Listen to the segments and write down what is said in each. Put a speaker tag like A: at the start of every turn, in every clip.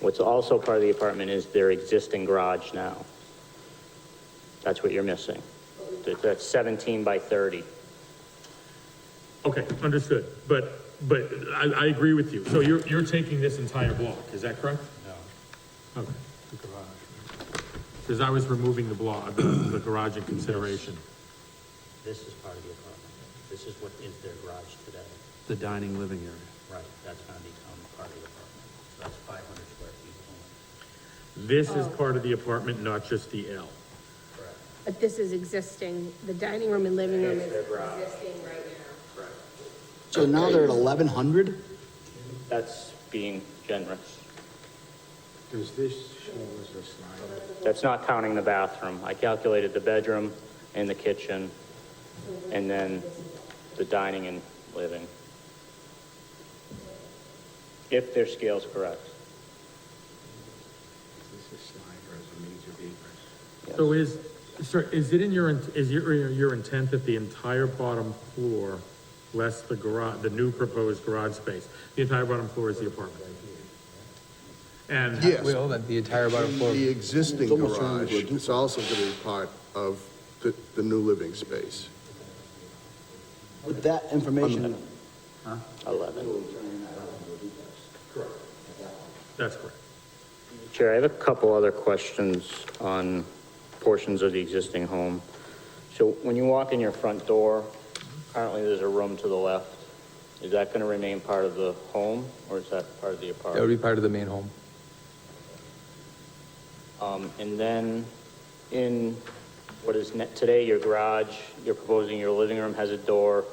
A: What's also part of the apartment is their existing garage now. That's what you're missing. That- That's 17 by 30.
B: Okay, understood, but, but I, I agree with you, so you're, you're taking this entire block, is that correct? No. Okay. Because I was removing the block, the- the garage in consideration.
C: This is part of the apartment. This is what is their garage today.
D: the dining living area.
C: Right. That's gonna become part of the apartment. So that's five hundred square feet only.
B: This is part of the apartment, not just the L.
C: Correct.
E: But this is existing, the dining room and living room is
C: their garage.
E: existing right now.
F: So now they're at eleven hundred?
A: That's being generous.
G: Does this show as a slide?
A: That's not counting the bathroom. I calculated the bedroom and the kitchen, and then the dining and living. If their scale's correct.
G: Is this a slide or is it major vapors?
A: yes.
B: So is, sir, is it in your, in- is your, your intent that the entire bottom floor, less the garage, the new proposed garage space, the entire bottom floor is the apartment? And.
H: Well, that the entire bottom floor.
I: The existing
G: It's almost turned
I: garage
G: into a duplex.
I: is also going to be part of the, the new living space.
F: With that information,
A: 11.
B: That's correct.
A: Chair, I have a couple other questions on portions of the existing home. So when you walk in your front door, currently there's a room to the left. Is that going to remain part of the home, or is that part of the
H: That would be
A: apartment?
H: part of the main home.
A: Um, And then in what is ne- today your garage, you're proposing your living room has a door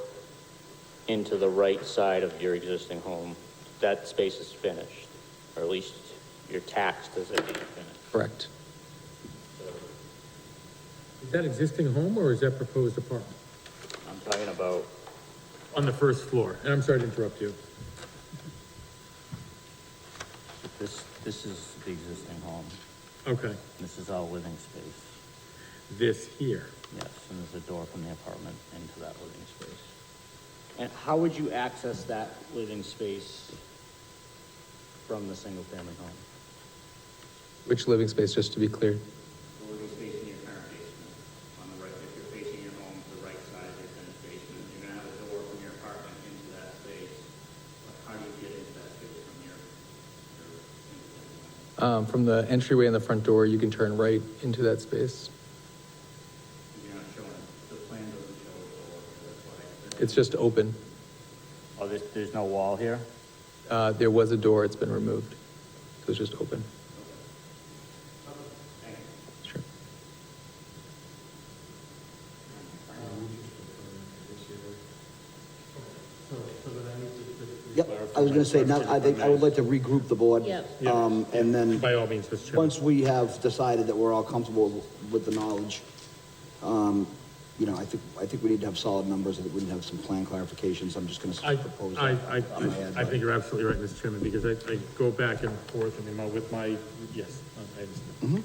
A: into the right side of your existing home. That space is finished, or at least you're taxed as if it's finished.
H: Correct.
B: Is that existing home or is that proposed apartment?
A: I'm talking about
B: On the first floor, and I'm sorry to interrupt you.
C: This, this is the existing home.
B: Okay,
C: This is all living space.
B: this here.
C: Yes, and there's a door from the apartment into that living space.
A: And how would you access that living space from the single-family home?
H: Which living space, just to be clear?
C: The living space in your current basement, on the right, if you're facing your home, to the right side of your finished basement, you're gonna have a door from your apartment into that space. But how do you get into that space from your, your single-family home?
H: Um, from the entryway and the front door, you can turn right into that space.
C: You're not showing, the plan doesn't show a door, that's why.
H: It's just open.
A: Oh, there's, there's no wall here?
H: Uh, there was a door, it's been removed. So it's just open. Sure.
F: yep, I was gonna say, now, I think, I would like to regroup the board.
E: Yep.
F: Um, and then,
B: By all means, Mr. Chairman.
F: once we have decided that we're all comfortable with the knowledge, um, you know, I think, I think we need to have solid numbers, I think we need to have some plan clarifications, I'm just
B: I,
F: gonna propose.
B: I,
F: that
B: I,
F: on my end,
B: I
F: but-
B: think you're absolutely right, Mr. Chairman, because I, I go back and forth and my- with my, yes, I understand.
F: Mm-hmm.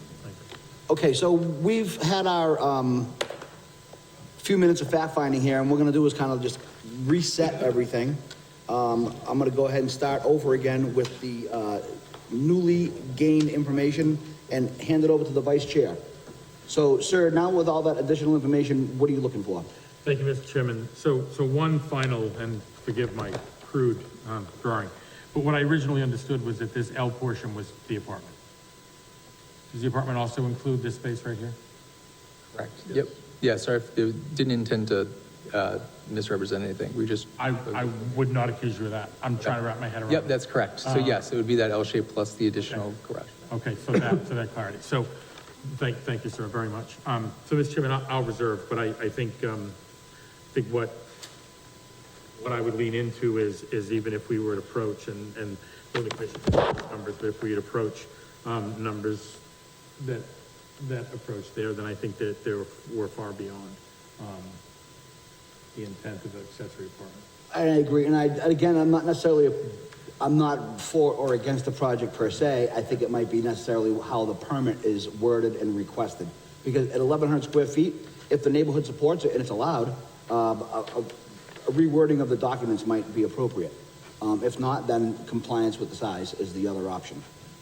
F: Okay, so we've had our, um, few minutes of fact-finding here, and what we're gonna do is kind of just reset everything. Um, I'm gonna go ahead and start over again with the, uh, newly gained information and hand it over to the vice chair. So, sir, now with all that additional information, what are you looking for?
B: Thank you, Mr. Chairman. So, so one final, and forgive my crude, um, drawing, but what I originally understood was that this L portion was the apartment. Does the apartment also include this space right here?
H: Correct. Yep. Yeah, sorry, if- it didn't intend to, uh, misrepresent anything. We just.
B: I, I would not accuse you of that. I'm trying to wrap my head around it.
H: Yep, that's correct. So yes, it would be that L shape plus the additional garage.
B: Okay, so that, so that clarity. So, thank, thank you, sir, very much. Um, so, Mr. Chairman, I'll, I'll reserve, but I, I think, um, I think what, what I would lean into is, is even if we were to approach and, and building commission numbers, but if we'd approach, um, numbers that, that approach there, then I think that there were far beyond, um, the intent of the accessory apartment.
F: I agree, and I, and again, I'm not necessarily, I'm not for or against the project per se, I think it might be necessarily how the permit is worded and requested. Because at eleven hundred square feet, if the neighborhood supports it and it's allowed, um, a, a a rewording of the documents might be appropriate. Um, if not, then compliance with the size is the other option.